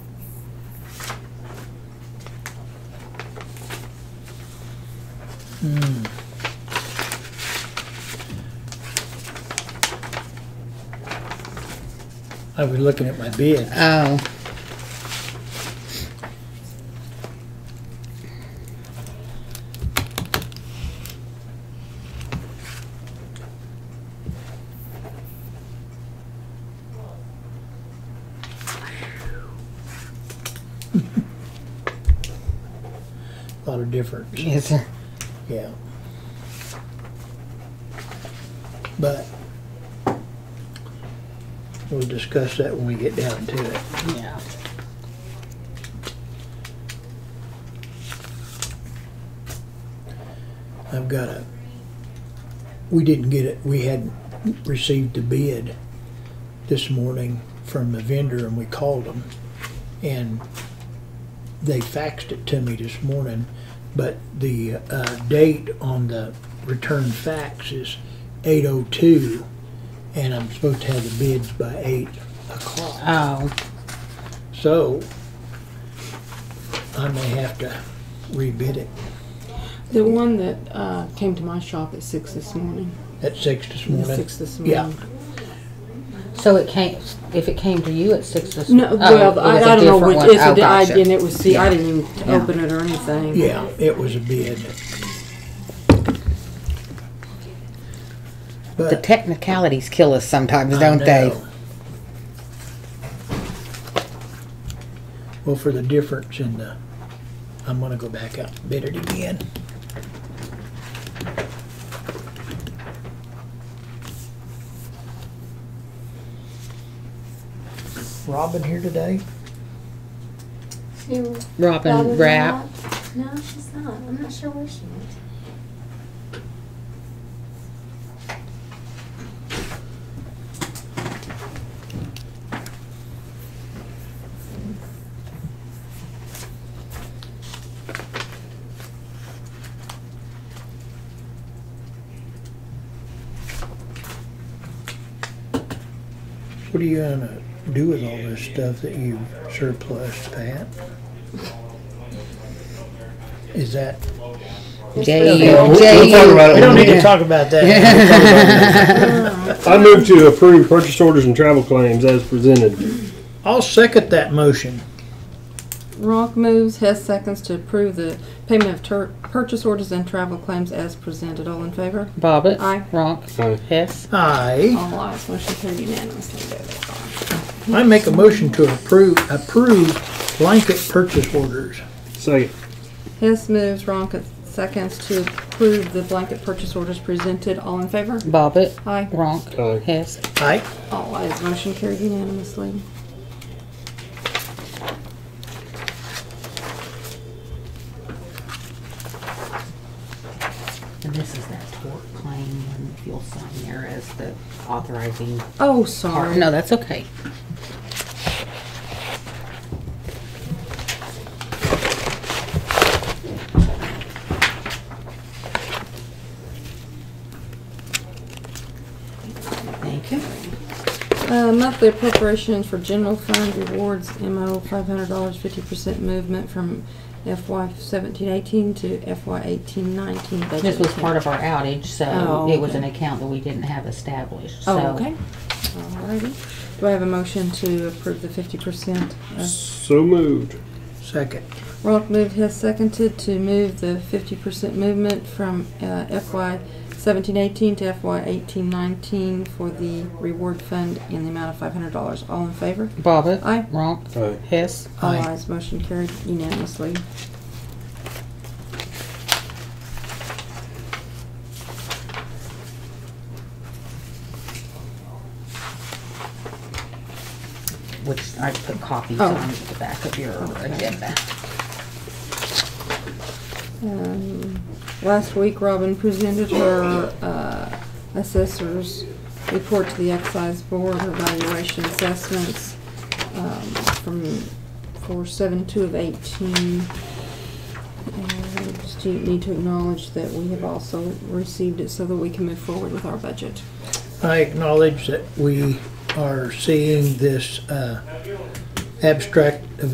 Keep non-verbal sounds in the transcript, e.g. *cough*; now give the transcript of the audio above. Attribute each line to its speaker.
Speaker 1: I was looking at my bid.
Speaker 2: Oh,
Speaker 1: A lot of difference,
Speaker 2: yes.
Speaker 1: yeah. But we'll discuss that when we get down to it.
Speaker 2: Yeah.
Speaker 1: I've got a, we didn't get it, we hadn't received the bid this morning from the vendor and we called them. And they faxed it to me this morning, but the, uh, date on the return fax is eight oh two. And I'm supposed to have the bids by eight o'clock.
Speaker 2: Oh,
Speaker 1: So I may have to rebid it
Speaker 3: The one that uh, came to my shop at six this morning.
Speaker 1: at six this
Speaker 3: At
Speaker 1: morning.
Speaker 3: Six this
Speaker 1: Yeah.
Speaker 3: morning.
Speaker 2: so it came, if it came to you at six this.
Speaker 3: No,
Speaker 2: oh,
Speaker 3: well,
Speaker 2: it
Speaker 3: I,
Speaker 2: was a
Speaker 3: I don't know
Speaker 2: different
Speaker 3: which.
Speaker 2: one.
Speaker 3: It's
Speaker 2: Oh,
Speaker 3: a, di- I,
Speaker 2: gotcha.
Speaker 3: and it was. See, I didn't even
Speaker 2: Yeah.
Speaker 3: open it or anything.
Speaker 1: Yeah, it was a bid.
Speaker 2: The
Speaker 1: But
Speaker 2: technicalities kill us sometimes,
Speaker 1: I
Speaker 2: don't they?
Speaker 1: know. Well, for the difference in the, I'm gonna go back out and bid it again. Robin here today?
Speaker 4: to
Speaker 2: Robin
Speaker 4: Robin
Speaker 2: Rapp.
Speaker 4: Rapp. No, she's not. I'm not sure where she went.
Speaker 1: What are you gonna do with all this stuff that you surplused, Pat? Is that?
Speaker 2: Jay,
Speaker 3: We'll-
Speaker 2: Jay.
Speaker 5: we'll talk about
Speaker 1: We
Speaker 5: it when
Speaker 1: don't
Speaker 5: we
Speaker 1: need to
Speaker 5: get-
Speaker 1: talk about that.
Speaker 5: I move to approve purchase orders and travel claims as presented.
Speaker 1: *laughs* I'll second that motion.
Speaker 3: Ronk moves. Hess seconds to approve the payment of tur purchase orders and travel claims as presented. All in favor?
Speaker 2: Bobbit.
Speaker 3: Aye.
Speaker 2: Ronk.
Speaker 5: Aye.
Speaker 2: Hess.
Speaker 1: Aye.
Speaker 3: All ayes. Motion carried unanimously. There they are.
Speaker 1: I make a motion to approve, approve blanket purchase orders.
Speaker 5: Second.
Speaker 3: Hess moves. Ronk seconds to approve the blanket purchase orders presented. All in favor?
Speaker 2: Bobbit.
Speaker 3: Aye.
Speaker 2: Ronk.
Speaker 5: Aye.
Speaker 2: Hess.
Speaker 1: Aye.
Speaker 3: All ayes. Motion carried unanimously.
Speaker 2: And this is that tort claim and if you'll sign there as the authorizing
Speaker 3: Oh, sorry.
Speaker 2: part. No, that's okay. Thank you.
Speaker 3: Uh, monthly appropriations for general fund rewards, MO five hundred dollars, fifty percent movement from FY seventeen eighteen to FY eighteen nineteen budget.
Speaker 2: This was part of our outage, so
Speaker 3: Oh,
Speaker 2: it was
Speaker 3: okay.
Speaker 2: an account that we didn't have established, so.
Speaker 3: Oh, okay. Alrighty. Do I have a motion to approve the fifty percent?
Speaker 5: So moved.
Speaker 1: Second.
Speaker 3: Ronk moved, Hess seconded to move the fifty percent movement from, uh, FY seventeen eighteen to FY eighteen nineteen for the reward fund in the amount of five hundred dollars. All in favor?
Speaker 2: Bobbit.
Speaker 3: Aye.
Speaker 2: Ronk.
Speaker 5: Aye.
Speaker 2: Hess.
Speaker 3: All
Speaker 1: Aye.
Speaker 3: ayes, motion carried unanimously.
Speaker 2: which I put copies
Speaker 3: Oh.
Speaker 2: on the back of your agenda.
Speaker 3: Um, Last week, Robin presented her uh, assessor's report to the excise board, her valuation assessments um, from, for seven two of eighteen. And we Just do need to acknowledge that we have also received it so that we can move forward with our budget.
Speaker 1: I acknowledge that we are seeing this uh, abstract of